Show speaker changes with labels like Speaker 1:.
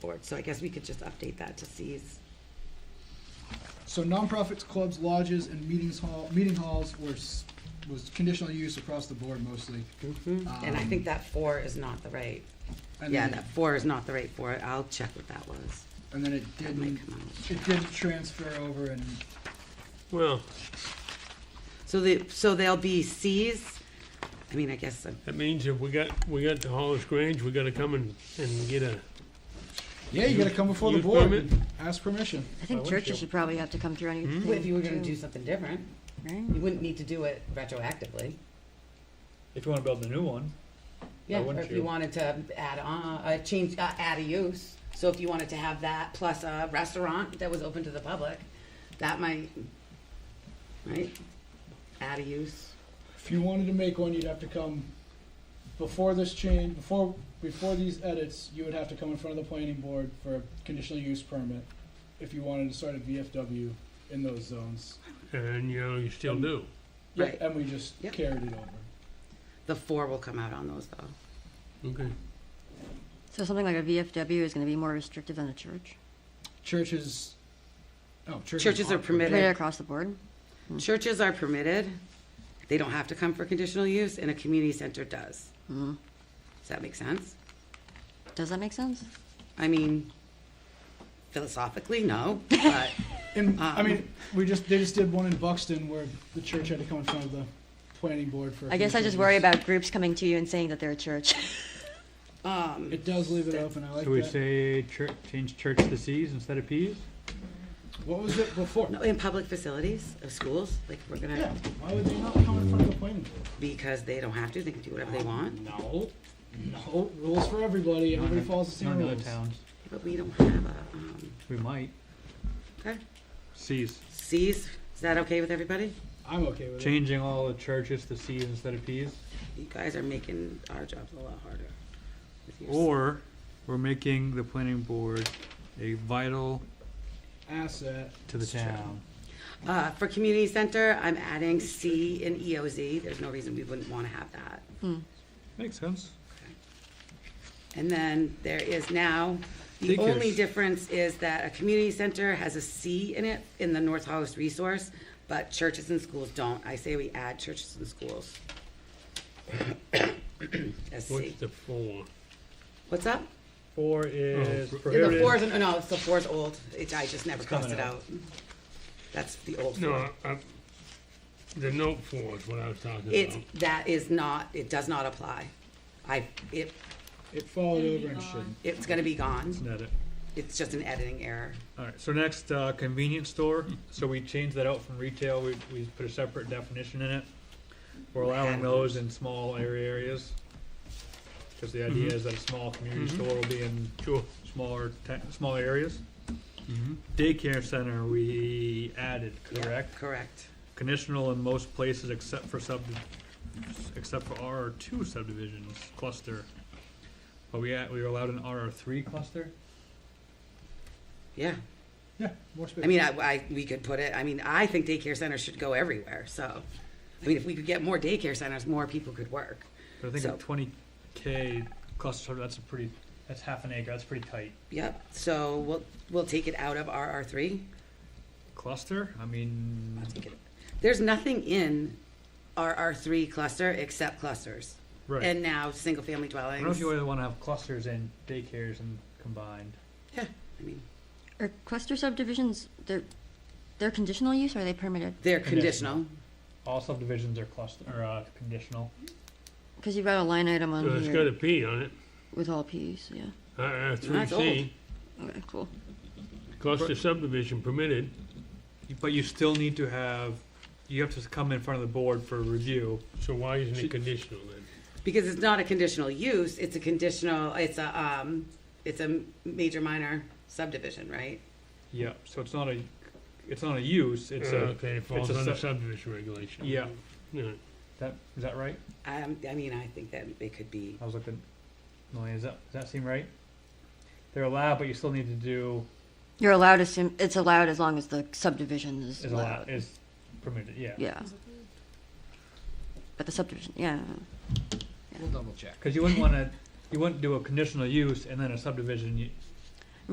Speaker 1: board, so I guess we could just update that to C's.
Speaker 2: So nonprofits, clubs, lodges, and meetings hall, meeting halls were, s- was conditional use across the board mostly.
Speaker 3: Mm-hmm.
Speaker 2: Um,
Speaker 1: And I think that four is not the right,
Speaker 2: And
Speaker 1: yeah,
Speaker 2: then-
Speaker 1: that four is not the right four, I'll check what that was.
Speaker 2: And then it
Speaker 1: That might
Speaker 2: didn't,
Speaker 1: come out.
Speaker 2: it didn't transfer over and,
Speaker 3: Well,
Speaker 1: So they, so they'll be C's, I mean, I guess, uh,
Speaker 3: that means if we got, we got the Hollis Grange, we gotta come and, and get a,
Speaker 2: yeah, you gotta come before the
Speaker 3: Use
Speaker 2: board
Speaker 3: permit?
Speaker 2: and ask permission.
Speaker 4: I think
Speaker 3: Why wouldn't
Speaker 4: churches
Speaker 3: you?
Speaker 4: should probably have to come through on your
Speaker 1: if you were gonna
Speaker 4: thing,
Speaker 1: do
Speaker 4: too,
Speaker 1: something different,
Speaker 4: right?
Speaker 1: you wouldn't need to do it retroactively.
Speaker 5: If you wanna build a new one,
Speaker 1: Yeah, or
Speaker 5: wouldn't
Speaker 1: if you
Speaker 5: you?
Speaker 1: wanted to add on, uh, change, uh, add a use, so if you wanted to have that plus a restaurant that was open to the public, that might, right? Add a use.
Speaker 2: If you wanted to make one, you'd have to come before this change, before, before these edits, you would have to come in front of the planning board for a conditional use permit if you wanted to start a VFW in those zones.
Speaker 3: and you know, you still do.
Speaker 2: Yeah,
Speaker 1: Right.
Speaker 2: And we just
Speaker 1: Yep.
Speaker 2: carried it over.
Speaker 1: The four will come out on those though.
Speaker 3: Okay.
Speaker 4: So something like a VFW is gonna be more restrictive than a church,
Speaker 2: Churches, oh, churches.
Speaker 1: Churches are permitted.
Speaker 4: right across the board.
Speaker 1: Churches are permitted. They don't have to come for conditional use and a community center does.
Speaker 4: Mhm.
Speaker 1: Does that make sense?
Speaker 4: Does that make sense?
Speaker 1: I mean, philosophically, no, but
Speaker 2: And, I
Speaker 1: Um,
Speaker 2: mean, we just, they just did one in Buxton where the church had to come in front of the planning board for.
Speaker 4: I guess I just worry about groups coming to you and saying that they're a church.
Speaker 1: um,
Speaker 2: It does leave it open, I like
Speaker 6: Can we
Speaker 2: that.
Speaker 6: say church, change church to C's instead of P's?
Speaker 2: What was it before?
Speaker 1: no, in public facilities or schools, like we're
Speaker 2: Yeah,
Speaker 1: gonna,
Speaker 2: why would they not come in front of the planning board?
Speaker 1: because they don't have to, they can do whatever they want.
Speaker 2: No, no, rules for everybody, everybody follows the
Speaker 6: Not
Speaker 2: same
Speaker 6: in other
Speaker 2: rules.
Speaker 6: towns.
Speaker 1: But we don't have a, um,
Speaker 6: We might.
Speaker 1: okay,
Speaker 6: C's.
Speaker 1: C's, is that okay with everybody?
Speaker 2: I'm okay with it.
Speaker 6: Changing all the churches to C's instead of P's.
Speaker 1: You guys are making our jobs a lot harder. with your-
Speaker 6: Or we're making the planning board a vital
Speaker 2: Asset,
Speaker 6: to the
Speaker 1: It's true.
Speaker 6: town.
Speaker 1: Uh, for community center, I'm adding C and EOZ, there's no reason we wouldn't wanna have that.
Speaker 6: Makes sense.
Speaker 1: And then there is now, the
Speaker 6: Think
Speaker 1: only
Speaker 6: it's-
Speaker 1: difference is that a community center has a C in it in the North Hollis resource, but churches and schools don't. I say we add churches and schools. As C.
Speaker 3: What's the four?
Speaker 1: What's up?
Speaker 5: four is
Speaker 3: Oh,
Speaker 1: Yeah, The four
Speaker 5: prohibited.
Speaker 1: is, no, it's the four is old. It, I just never crossed
Speaker 5: coming
Speaker 1: it out. That's the old
Speaker 3: No,
Speaker 1: four.
Speaker 3: I- I- the note four is what I was talking
Speaker 1: It's,
Speaker 3: about.
Speaker 1: that is not, it does not apply. I, it,
Speaker 2: it followed over and shouldn't.
Speaker 1: it's gonna be gone.
Speaker 6: Not it.
Speaker 1: It's just an editing error.
Speaker 6: Alright, so next, uh, convenience store. So we changed that out from retail. We, we put a separate definition in it. We're allowing those in small area areas. Cause the idea is that a small community store will be in
Speaker 3: Sure.
Speaker 6: smaller, ta- smaller areas.
Speaker 3: Mm-hmm.
Speaker 6: Daycare center, we added,
Speaker 1: Yeah,
Speaker 6: correct?
Speaker 1: Correct.
Speaker 6: Conditional in most places except for sub, except for RR two subdivisions cluster. But we, at- we were allowed an RR three cluster?
Speaker 1: Yeah.
Speaker 2: Yeah, more space.
Speaker 1: I mean, I, I, we could put it, I mean, I think daycare centers should go everywhere, so. I mean, if we could get more daycare centers, more people could work.
Speaker 6: But I think
Speaker 1: So-
Speaker 6: a twenty K cluster, that's a pretty, that's half an acre, that's pretty tight.
Speaker 1: Yep, so we'll, we'll take it out of RR three.
Speaker 6: Cluster, I mean,
Speaker 1: There's nothing in RR three cluster except clusters.
Speaker 6: Right.
Speaker 1: And now, single-family
Speaker 6: I don't know if
Speaker 1: dwellings.
Speaker 6: you really wanna have clusters and daycares and combined.
Speaker 1: Yeah, I mean,
Speaker 4: Are cluster subdivisions, they're, they're conditional use or are they permitted?
Speaker 1: they're
Speaker 6: Conditional.
Speaker 1: conditional.
Speaker 6: All subdivisions are cluster, or, uh, conditional.
Speaker 4: Because you've got a line item
Speaker 3: So
Speaker 4: on
Speaker 3: Uh, it's got a
Speaker 4: here
Speaker 3: P on it,
Speaker 4: with all Ps, yeah.
Speaker 3: uh, three
Speaker 1: That's old.
Speaker 3: C,
Speaker 4: Okay, cool.
Speaker 3: cluster subdivision permitted.
Speaker 6: But you still need to have, you have to come in front of the board for review.
Speaker 3: So why isn't it
Speaker 6: Should-
Speaker 3: conditional then?
Speaker 1: Because it's not a conditional use, it's a conditional, it's a, um, it's a major minor subdivision, right?
Speaker 6: Yeah, so it's not a, it's not a use, it's
Speaker 3: Uh,
Speaker 6: a,
Speaker 3: Okay, it falls
Speaker 6: a
Speaker 3: under
Speaker 6: sub-
Speaker 3: subdivision regulation.
Speaker 6: yeah,
Speaker 3: Yeah.
Speaker 6: that, is that right?
Speaker 1: I, Um, I mean, I think that it could be,
Speaker 6: I was looking, Melanie, does that, does that seem right? They're allowed, but you still need to do,
Speaker 4: You're allowed to, sim- it's allowed as long as the subdivision is
Speaker 6: is allowed,
Speaker 4: allowed.
Speaker 6: is permitted, yeah.
Speaker 4: Yeah. But the subdivision, yeah.
Speaker 2: We'll double check.
Speaker 6: Cause you wouldn't wanna, you wouldn't do a conditional use and then a subdivision, you,